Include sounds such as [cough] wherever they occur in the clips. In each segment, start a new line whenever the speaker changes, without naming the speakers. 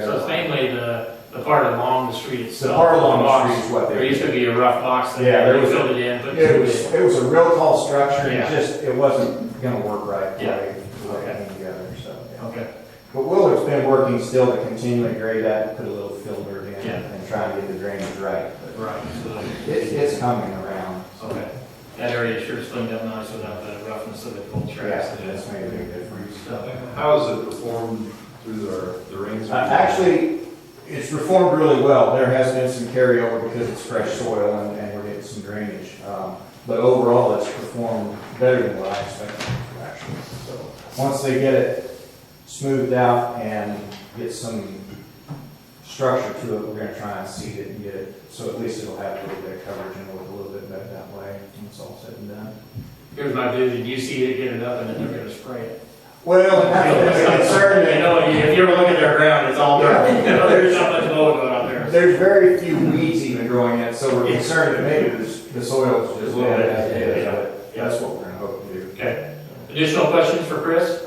So it's
Yeah.
mainly the, the part along the street
It's the
itself.
part along
box.
the street is what
There used
they,
to be a rough box that
Yeah, there
they
was a-
filled it in, put
it
two
was,
in.
it was a real tall structure, it
Yeah.
just, it wasn't gonna work right. the
Yeah.
way- the way it
Okay.
came together, so. yeah.
Okay,
But Willard's been working still to continually grade that, and put a little filter in
Yeah.
and try and get the drainage right.
right, so,
But It's, it's coming around. so,
okay. That area sure is cleaned up nice without the roughness of the cold tracks.
Yeah, that's made a big difference.
So,
How has it performed through the, the rains?
Uh, Actually, it's reformed really well. There has been some carryover because it's fresh soil and, and we're getting some drainage. Um, But overall, it's performed better than what I expected it to actually. So, once they get it smoothed out and get some structure to it, we're gonna try and seed it and get it, so at least it'll have a little bit of coverage and look a little bit better that way when it's all said and done.
here's my vision, you see it, get it up, and then they're gonna spray
[laughs]
it.
Well, that's the concern
You know, if you ever look at their ground, it's all dirt, you know, there's not much mold going on there.
There's very few weeds even growing in, it, so we're concerned that maybe this- the soil is just
A little
bad
bit,
as it is,
yeah,
but
yeah.
that's what we're gonna hope to do.
Okay, additional questions for Chris?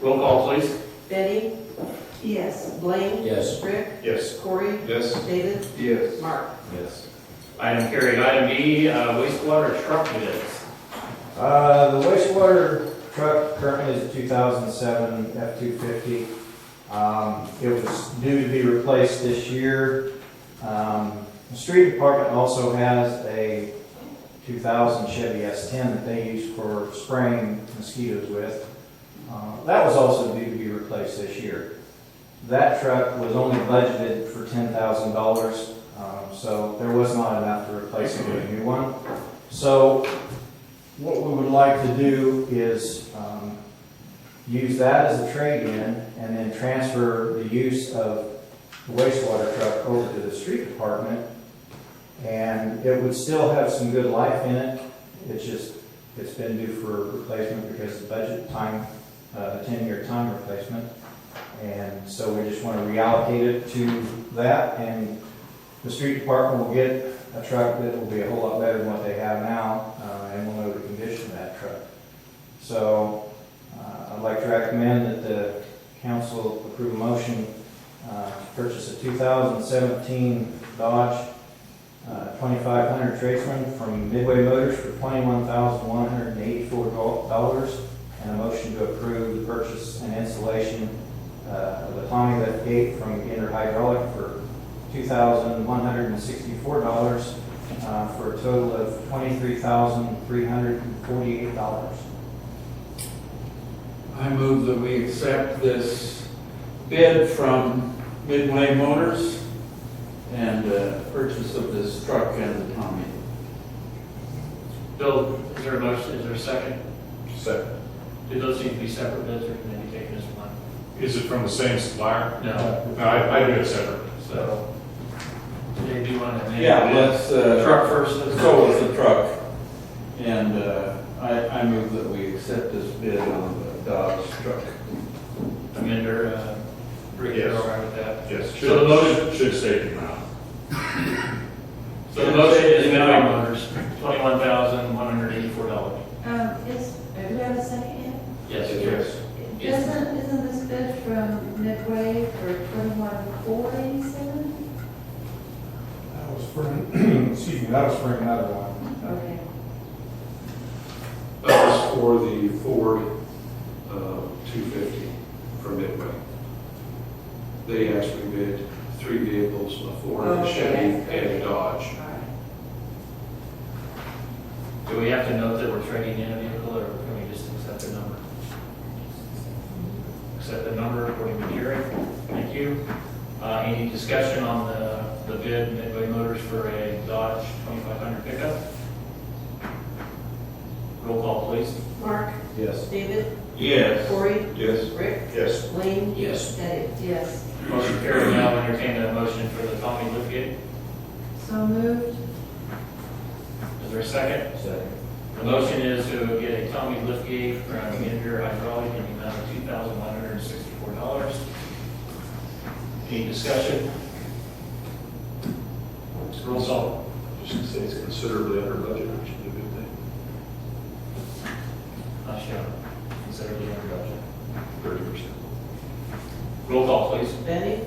Roll call, please.
Betty? Yes. Blaine?
Yes.
Rick?
Yes.
Corey?
Yes.
David?
Yes.
Mark?
Yes.
Item carried, item B, uh, wastewater truck bids.
Uh, the wastewater truck currently is a two thousand seven F two fifty. Um, it was due to be replaced this year. Um, the street department also has a two thousand Chevy S ten that they use for spraying mosquitoes with. Uh, that was also due to be replaced this year. That truck was only budgeted for ten thousand dollars, um, so there was not enough to replace it with a new one. So what we would like to do is um, use that as a trade-in and then transfer the use of the wastewater truck over to the street department. And it would still have some good life in it. It's just, it's been due for replacement because the budget time, uh, the ten-year time replacement. And so we just want to reallocate it to that and the street department will get a truck that will be a whole lot better than what they have now, uh, and we'll know the condition of that truck. So, uh, I'd like to recommend that the council approve a motion, uh, to purchase a two thousand seventeen Dodge, uh, twenty-five hundred tradesman from Midway Motors for twenty-one thousand one hundred and eighty-four dollars, and a motion to approve the purchase and installation, uh, of a Tommy lift gate from Gator Hydraulic for $2,164 uh, for a total of $23,348.
I move that we accept this bid from Midway Motors and uh, purchase of this truck and the Tommy.
Bill, is there a motion, is there a second?
Second.
Do those need to be separate bids or can they be taken as one?
Is it from the same supplier?
No,
No, I, I do it separate.
so, do you want to? amend
Yeah,
the
let's,
bid?
uh,
Truck first, let's
go
go.
with the truck. And uh, I, I move that we accept this bid on the Dodge truck.
Amender, uh, Rick, you're all right with that?
Yes.
So the motion-
Should save the amount.
So the motion is Midway Motors, twenty-one thousand, one hundred eighty-four dollars.
Um, is, do we have a second
Yes,
yet? Isn't, isn't this bid from Midway for twenty-one four eighty-seven?
That was for, [clears throat] excuse me, that was for another one.
Okay.
That was for the Ford, um, two fifty from Midway. They actually bid three vehicles, a Ford, a Chevy, and a Dodge.
All right.
Do we have to note that we're trading in a vehicle or can we just accept the number? Accept the number according to Gary. Thank you. Uh, any discussion on the, the bid Midway Motors for a Dodge twenty-five hundred pickup? Roll call, please.
Mark?
Yes.
David?
Yes.
Corey?
Yes.
Rick?
Yes.
Blaine?
Yes.
Betty?
Yes.
Motion carried. Now entertain a motion for the Tommy Lithgate.
So moved?
Is there a second?
Second.
The motion is to get a Tommy Lithgate from Inter Hydraulic in the amount of two thousand one hundred and sixty-four dollars. Any discussion? Roll call.
Just to say it's considerably under budget, which is a good thing.
Not shown. Considerably under budget.
Thirty percent.
Roll call, please.
Benny?